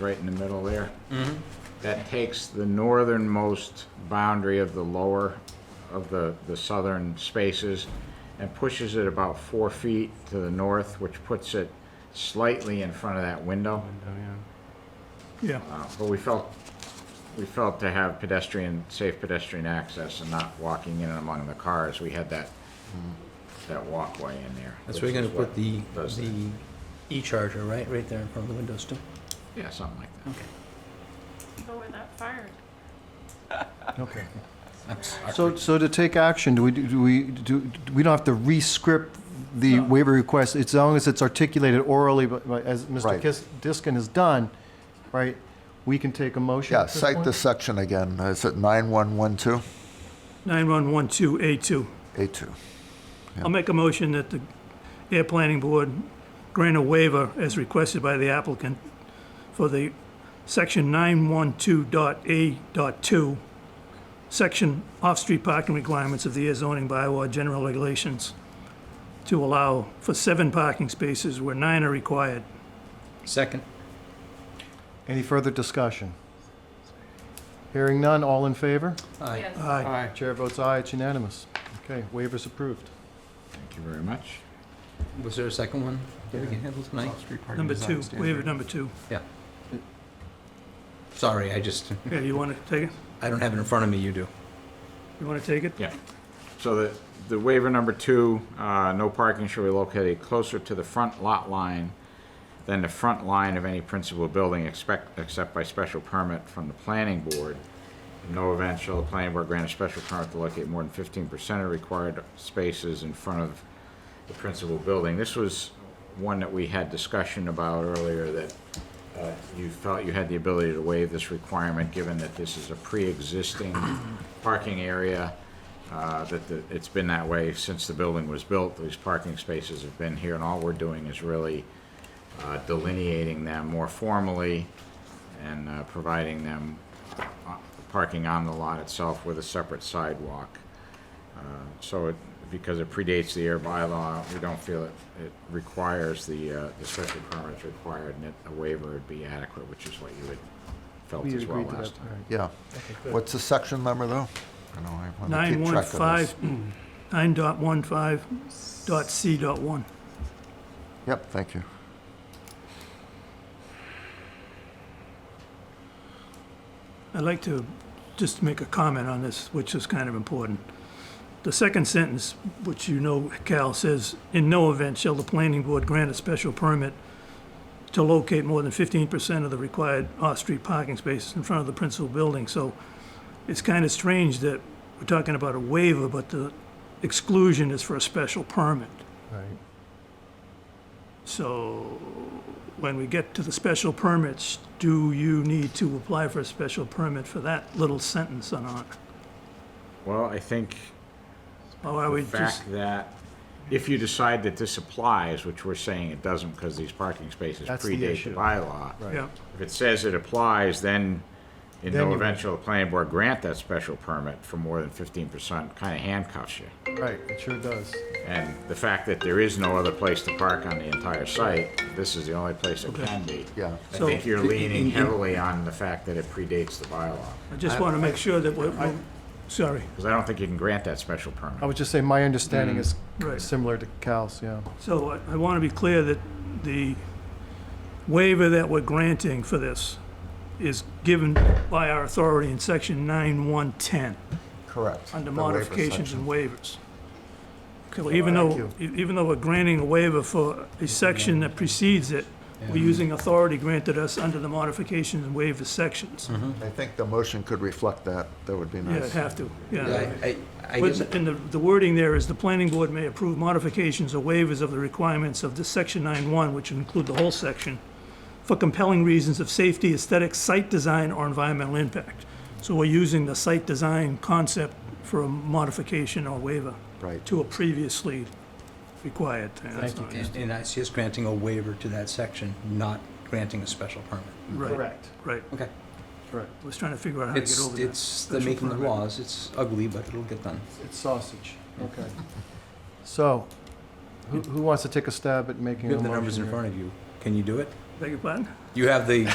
right in the middle there. Mm-hmm. That takes the northernmost boundary of the lower, of the, the southern spaces and pushes it about four feet to the north, which puts it slightly in front of that window. Yeah, Uh, But we felt, we felt to have pedestrian, safe pedestrian access and not walking in and among the cars. We had that, that walkway in there. Mm-hmm. That's where which you're is gonna what put the, does that. the e-charger, right, right there in front of the windows too? Yeah, something like that. Okay. Go where that fire okay. I'm sorry. So, so to take action, do we, do we, do, do- we don't have to re-script the No. waiver request, as long as it's articulated orally, but, but as Mr. Right. Kis- Diskin has done, right? We can take a motion Yeah, at this cite point? the section again. Uh, Is it 9112? 9112A2. A2. I'll make a motion that the Air Planning Board grant a waiver as requested by the applicant for the section 912.A.2, section off-street parking requirements of the air zoning bylaw general regulations to allow for seven parking spaces where nine are required. Second. Any further discussion? Hearing none, all in favor? Aye. Yes. Aye. Chair votes aye, it's unanimous. Okay, waiver's approved. Thank you very much. Was there a second one that we can handle tonight? Number two, waiver number two. Sorry, I just, Yeah, you want to take it? I don't have it in front of me, you do. You want to take it? Yeah. So the, the waiver number two, uh, no parking shall be located closer to the front lot line than the front line of any principal building expect, except by special permit from the planning board. In no event shall the planning board grant a special permit to locate more than fifteen percent of required spaces in front of the principal building. This was one that we had discussion about earlier that, uh, you felt you had the ability to waive this requirement, given that this is a pre-existing parking area, uh, that the- it's been that way since the building was built. These parking spaces have been here, and all we're doing is really uh, delineating them more formally and uh, providing them uh, parking on the lot itself with a separate sidewalk. Uh, So it, because it predates the air bylaw, we don't feel it, it requires the, uh, the special permit is required and that a waiver would be adequate, which is what you had felt We as well agreed to that. last time. all right. Yeah. What's the section number, though? I know I wanna keep track of this. 915, 9.15 dot C dot 1. Yep, thank you. I'd like to just make a comment on this, which is kind of important. The second sentence, which you know, Cal, says, "In no event shall the planning board grant a special permit to locate more than 15% of the required off-street parking spaces in front of the principal building." So it's kind of strange that we're talking about a waiver, but the exclusion is for a special permit. Right. So when we get to the special permits, do you need to apply for a special permit for that little sentence or not? Well, I think Or are we the just, fact that if you decide that this applies, which we're saying it doesn't because these parking spaces That's the predate the issue. bylaw. Right. yeah, If it says it applies, then in Then no you- event shall the planning board grant that special permit for more than fifteen percent, kind of handcuffs you. Right, it sure does. And the fact that there is no other place to park on the entire site, this is the only place it Okay. can be. Yeah. I So- think you're leaning heavily on the fact that it predates the bylaw, I just want to make sure that we're, we're- sorry, because I don't think you can grant that special I permit. would just say my understanding is Mm. right. similar to Cal's, yeah. So I- I want to be clear that the waiver that we're granting for this is given by our authority in section 9110. Correct. under The waiver modifications section. and waivers. Okay, even though, Thank e- even though we're granting a waiver for a section that precedes it, we're using authority granted us under the modifications and waivers sections. I think the motion could reflect that. That would be Yeah, it'd Mm-hmm. nice. have to, yeah. Yeah, I, I, I But didn't- the- And the the wording there is, "The planning board may approve modifications or waivers of the requirements of this section 9.1, which include the whole section, for compelling reasons of safety, aesthetics, site design, or environmental impact." So we're using the site design concept for a modification or waiver. Right. to a previously required thing. That's not- and- and I see us granting a waiver to that section, not granting a special permit. Right, Correct, right. Okay. correct. I was trying to figure out how to get It's, over that. it's the special making of the permit. laws. It's ugly, but it'll get done. It's sausage, okay. So, who, who wants to take a stab at making You a have motion? the numbers in here? front of you. Can you do it? Beg your pardon? You have the